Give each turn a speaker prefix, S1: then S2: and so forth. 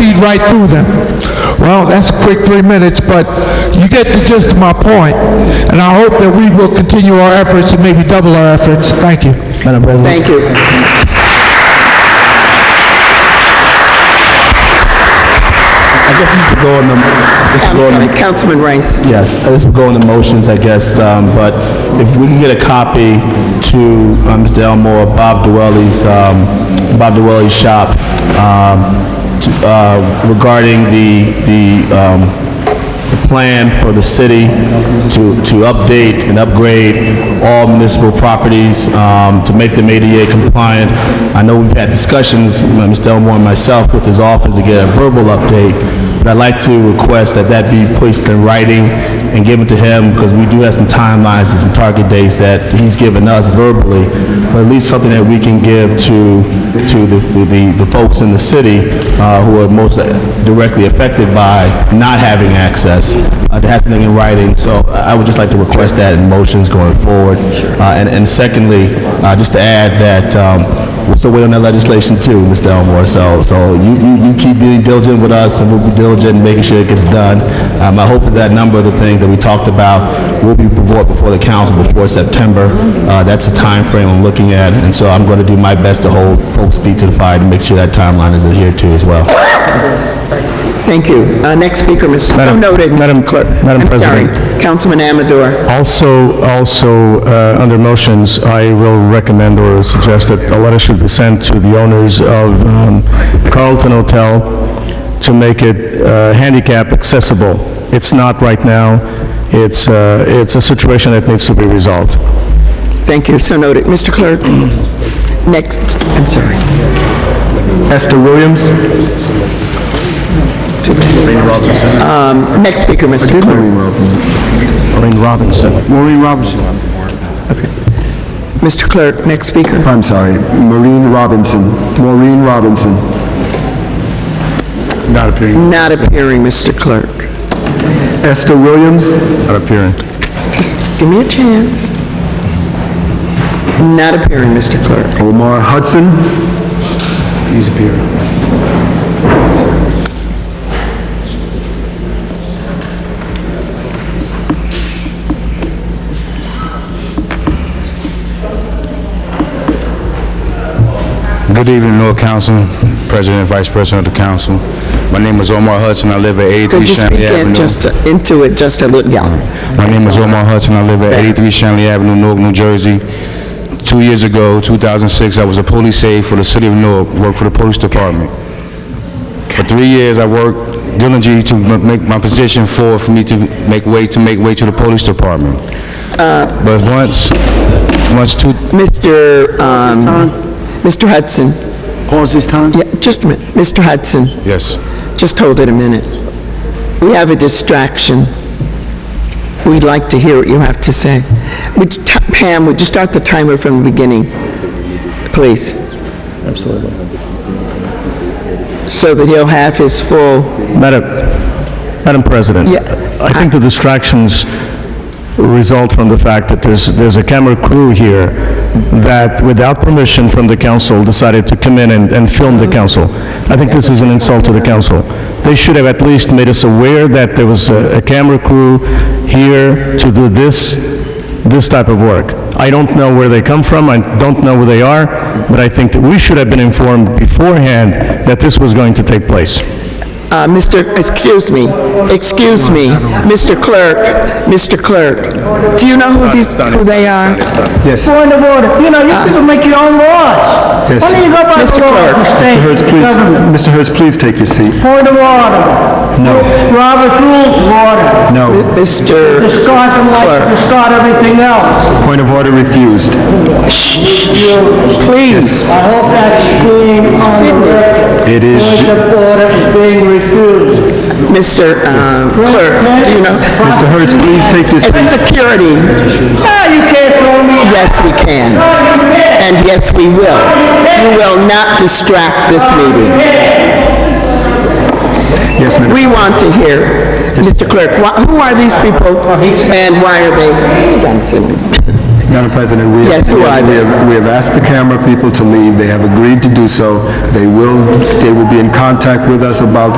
S1: right through them. Well, that's a quick three minutes, but you get the gist of my point, and I hope that we will continue our efforts and maybe double our efforts. Thank you.
S2: Madam President.
S3: Thank you.
S2: I guess this would go in the, this would
S3: I'm
S2: go in
S3: sorry,
S2: the,
S3: Councilman Rice.
S2: yes, this would go in the motions, I guess, um, but if we can get a copy to uh, Mr. Elmore, Bob Dwelly's, um, Bob Dwelly's shop, um, to- uh, regarding the, the, um, the plan for the city to, to update and upgrade all municipal properties, um, to make them ADA compliant. I know we've had discussions, uh, Mr. Elmore and myself, with his office to get a verbal update, but I'd like to request that that be placed in writing and given to him, because we do have some timelines and some target dates that he's given us verbally, but at least something that we can give to, to the, the, the folks in the city, uh, who are most directly affected by not having access, uh, to have something in writing. So I I would just like to request that in motions going forward. Uh, and, and secondly, uh, just to add that, um, we're still waiting on that legislation too, Mr. Elmore. So, so you, you, you keep being diligent with us and we'll be diligent in making sure it gets done. Um, I hope that that number of the things that we talked about will be brought before the council before September. Uh, that's the time frame I'm looking at. And so I'm going to do my best to hold folks' feet to the fire to make sure that timeline is adhered to as well.
S3: Thank you. Uh, Next speaker, Mr. So noted. Madam Clerk,
S4: Madam
S3: I'm sorry, Councilman Amador.
S4: Also, also, uh, under motions, I will recommend or suggest that a letter should be sent to the owners of um, Carlton Hotel to make it uh, handicap accessible. It's not right now. It's, uh, it's a situation that needs to be resolved.
S3: Thank you, so noted. Mr. Clerk, next, I'm sorry.
S2: Esther Williams?
S3: Um, Next speaker, Mr. Clerk.
S4: Lorraine Robinson.
S5: Maureen Robinson.
S3: Mr. Clerk, next speaker.
S5: I'm sorry, Maureen Robinson. Maureen Robinson.
S4: Not appearing.
S3: Not appearing, Mr. Clerk.
S5: Esther Williams.
S4: Not appearing.
S3: Just give me a chance. Not appearing, Mr. Clerk.
S5: Omar Hudson. He's appearing.
S6: Good evening, Lord Council, President and Vice President of the Council. My name is Omar Hudson, I live at 83
S3: Could you speak
S6: Shanley
S3: in
S6: Avenue.
S3: just, into it just a little, yeah.
S6: My name is Omar Hudson, I live at 83 Shanley Avenue, Newark, New Jersey. Two years ago, 2006, I was a police aide for the City of Newark, worked for the Police Department. For three years, I worked diligently to m- make my position forward for me to make way, to make way to the Police Department.
S3: Uh,
S6: But once, once two,
S3: Mr. um, Mr. Hudson,
S5: Pause this time?
S3: yeah, just a minute. Mr. Hudson,
S6: yes.
S3: just hold it a minute. We have a distraction. We'd like to hear what you have to say. Would you t- Pam, would you start the timer from the beginning, please? Absolutely. So that he'll have his full,
S4: Madam, Madam President?
S3: Yeah.
S4: I think the distractions result from the fact that there's, there's a camera crew here that, without permission from the council, decided to come in and, and film the council. I think this is an insult to the council. They should have at least made us aware that there was a, a camera crew here to do this, this type of work. I don't know where they come from, I don't know where they are, but I think that we should have been informed beforehand that this was going to take place.
S3: uh, Mr., excuse me, excuse me, Mr. Clerk, Mr. Clerk. Do you know who these, who they are?
S7: Yes. Point of order. You know, you
S5: Ah.
S7: people make your own laws. Why don't you go by
S3: Mr.
S7: the law of
S3: Clerk.
S7: the state
S5: Mr. Hertz, please,
S7: government?
S5: Mr. Hertz, please take your seat.
S7: Point of order.
S5: No.
S7: Robert's Rules of Order.
S5: No.
S3: Mr.
S7: Discard the life, discard everything else.
S5: Point of order refused.
S3: Please.
S7: I hope that's being on the record.
S5: It is-
S7: Point of order is being refused.
S3: Mr. uh, Clerk, do you know?
S5: Mr. Hertz, please take your
S3: It's
S5: seat.
S3: security.
S7: Ah, you can't throw me.
S3: Yes, we can.
S7: Ah, you can't.
S3: And yes, we will. You will not distract this meeting.
S5: Yes, ma'am.
S3: We want to hear. Mr. Clerk, wh- who are these people and why are they?
S5: Madam President, we
S3: Yes,
S5: have,
S3: you
S5: we
S3: are.
S5: have, we have asked the camera people to leave. They have agreed to do so. They will, they will be in contact with us about